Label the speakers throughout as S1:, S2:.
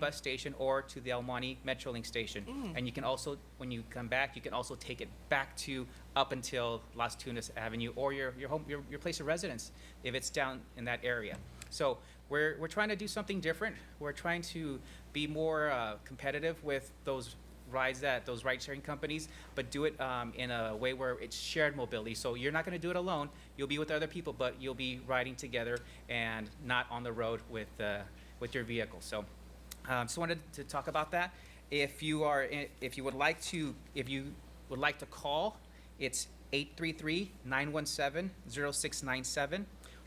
S1: bus station or to the El Monte Metrolink station. And you can also, when you come back, you can also take it back to up until Las Tunas Avenue or your, your home, your, your place of residence, if it's down in that area. So we're, we're trying to do something different. We're trying to be more uh, competitive with those rides that those ride sharing companies, but do it um, in a way where it's shared mobility. So you're not going to do it alone. You'll be with other people, but you'll be riding together and not on the road with uh, with your vehicle. So um, just wanted to talk about that. If you are in, if you would like to if you would like to call, it's 833-917-0697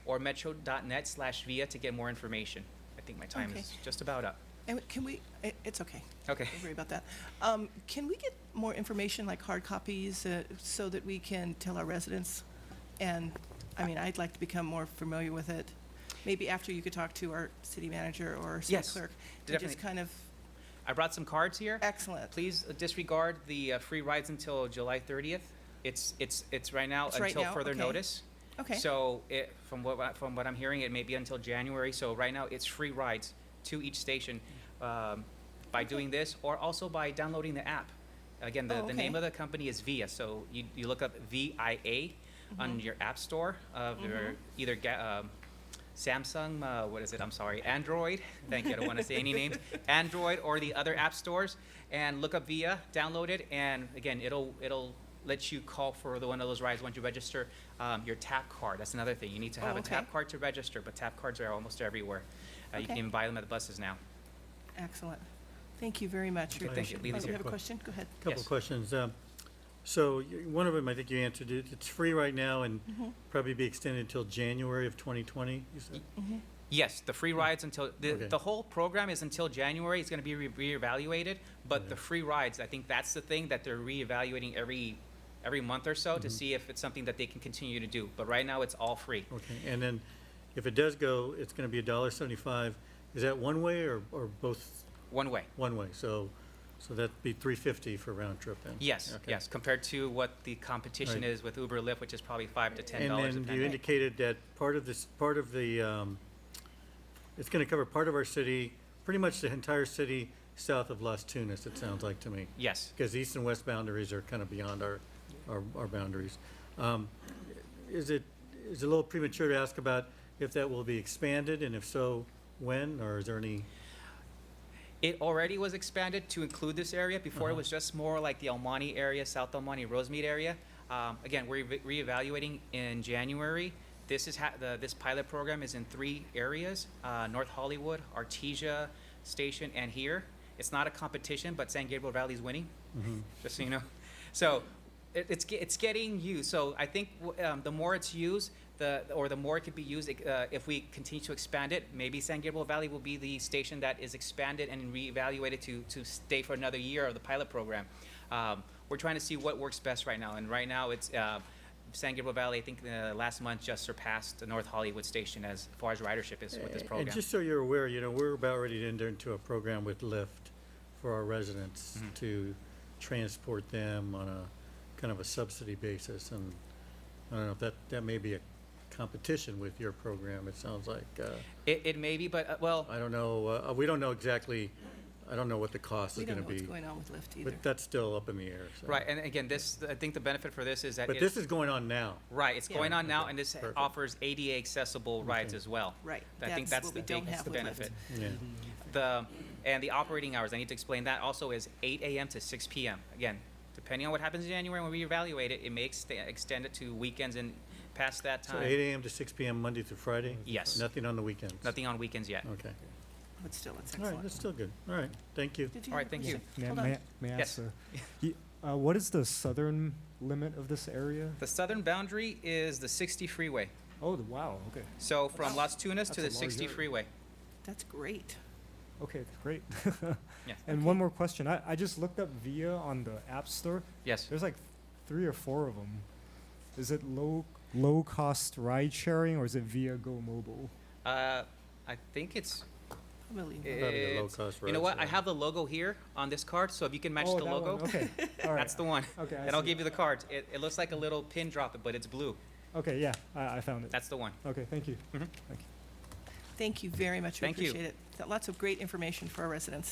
S1: or metro.net slash via to get more information. I think my time
S2: Okay.
S1: is just about up.
S2: And can we, it, it's okay.
S1: Okay.
S2: Don't worry about that. Um, can we get more information, like hard copies, uh, so that we can tell our residents? And, I mean, I'd like to become more familiar with it. Maybe after you could talk to our city manager or city
S1: Yes,
S2: clerk. and
S1: definitely.
S2: Just kind of,
S1: I brought some cards here.
S2: excellent.
S1: Please disregard the uh, free rides until July 30th. It's, it's, it's right now
S2: It's right
S1: until
S2: now?
S1: further
S2: Okay.
S1: notice.
S2: Okay.
S1: So it, from what, I- from what I'm hearing, it may be until January. So right now, it's free rides to each station um, by doing this or also by downloading the app. Again, the,
S2: Oh,
S1: the name of
S2: okay.
S1: the company is VIA. So you, you look up V-I-A
S2: Mm-hmm.
S1: on your app store of your either ga- um, Samsung, uh, what is it? I'm sorry, Android. Thank you. I don't want to say any names. Android or the other app stores, and look up Via, download it, and again, it'll it'll let you call for the one of those rides once you register. Um, your tap card. That's another thing. You need to have
S2: Oh,
S1: a tap
S2: okay.
S1: card to register, but tap cards are almost everywhere. Uh, You can
S2: Okay.
S1: even buy them at the buses now.
S2: Excellent. Thank you very much.
S1: Okay, thank you.
S2: Richard.
S1: Leave
S2: Oh,
S1: this
S2: you
S1: here.
S2: have a question? Go ahead.
S3: Couple
S1: Yes.
S3: of questions. Um, So y- one of them, I think you answered it. It's free right now and probably be extended until January of 2020, you said?
S1: Yes, the free rides until, the,
S3: Hmm. Okay.
S1: the whole program is until January, it's gonna be re- reevaluated, but the free rides, I think that's the thing that they're reevaluating every, every month or
S3: Mm-hmm.
S1: so to see if it's something that they can continue to do, but right now it's all free.
S3: Okay, and then if it does go, it's going to be a dollar seventy-five. Is that one way or, or both,
S1: One way,
S3: one way? So, so that'd be three fifty for round trip then?
S1: yes,
S3: Okay.
S1: yes, compared to what the competition
S3: Right.
S1: is with Uber Lyft, which is probably five to ten
S3: And
S1: dollars.
S3: then you
S1: depending.
S3: indicated that part of this, part of the, um, it's going to cover part of our city, pretty much the entire city south of Las Tunas, it sounds like to me.
S1: Yes,
S3: because the east and west boundaries are kind of beyond our, our, our boundaries. Um, Is it, is it a little premature to ask about if that will be expanded, and if so, when, or is there any?
S1: it already was expanded to include this area, before it was just more like the El Monte area, South El Monte, Rosemead area. Um, again, we're re- reevaluating in January. This is ha- the, this pilot program is in three areas, uh, North Hollywood, Artesia Station, and here. It's not a competition, but San Gabriel Valley's winning, just so you know. So it, it's, ge- it's getting used. So I think w- um, the more it's used, the, or the more it could be used, uh, if we continue to expand it, maybe San Gabriel Valley will be the station that is expanded and reevaluated to, to stay for another year of the pilot program. Um, we're trying to see what works best right now, and right now it's, uh, San Gabriel Valley, I think, uh, last month just surpassed the North Hollywood station as far as ridership is with this program.
S3: Eh, And just so you're aware, you know, we're about ready to enter into a program with Lyft for our residents
S1: Mm-hmm.
S3: to transport them on a, kind of a subsidy basis, and I don't know if that, that may be a competition with your program, it sounds like. uh,
S1: It, it may be, but, uh, well,
S3: I don't know, uh, we don't know exactly, I don't know what the cost
S2: We
S3: is
S2: don't
S3: gonna
S2: know
S3: be.
S2: what's going on with Lyft either.
S3: But that's still up in the air, so.
S1: right, uh, and again, this, I think the benefit for this is that
S3: But
S1: it's-
S3: this is going on now.
S1: Right, it's
S2: Yeah.
S1: going on now,
S3: Okay,
S1: and this
S3: perfect.
S1: offers ADA accessible rides as well.
S2: Right,
S1: I think
S2: that's
S1: that's
S2: what
S1: the
S2: we don't
S1: big, that's
S2: have
S1: the
S2: with Lyft.
S1: benefit.
S3: Yeah,
S1: The, and the operating hours, I need to explain that also is eight AM to six PM. Again, depending on what happens in January when we evaluate it, it may extend, extend it to weekends and past that
S3: so
S1: time.
S3: eight AM to six PM, Monday through Friday?
S1: Yes.
S3: Nothing on the weekends?
S1: Nothing on weekends yet.
S3: Okay.
S2: But still, it's
S3: All right,
S2: excellent.
S3: that's still good. All right, thank you.
S2: Did you
S1: All right,
S2: have a
S1: thank you.
S2: question?
S4: May, I-
S2: Hold
S4: may,
S2: on.
S4: I- may I
S1: Yes.
S4: ask, yes. uh, what is the southern limit of this area?
S1: The southern boundary is the sixty freeway.
S4: Oh, the, wow. Okay.
S1: So from Las Tunas to
S4: That's
S1: the
S4: a
S1: sixty
S4: large area.
S1: freeway.
S2: That's great.
S4: Okay. Great.
S1: Yes.
S4: And one more question. I, I just looked up Via on the App Store.
S1: Yes.
S4: There's like three or four of them. Is it low low cost ride sharing or is it Via Go Mobile?
S1: Uh, I think it's,
S2: Probably not.
S3: Probably the
S1: it's,
S3: low-cost
S1: you know
S3: routes
S1: what? I
S3: are-
S1: have the logo here on this card, so if you can match
S4: oh,
S1: the
S4: that
S1: logo,
S4: One. Okay. All right.
S1: that's the one.
S4: Okay. I
S1: And I'll
S4: see.
S1: give you the cards. It, it looks like a little pin drop, but it's blue.
S4: Okay. Yeah. I, I found it.
S1: That's the one.
S4: okay. Thank you.
S2: Thank you very much. We
S1: Thank you.
S2: appreciate it. Got Lots of great information for our residents.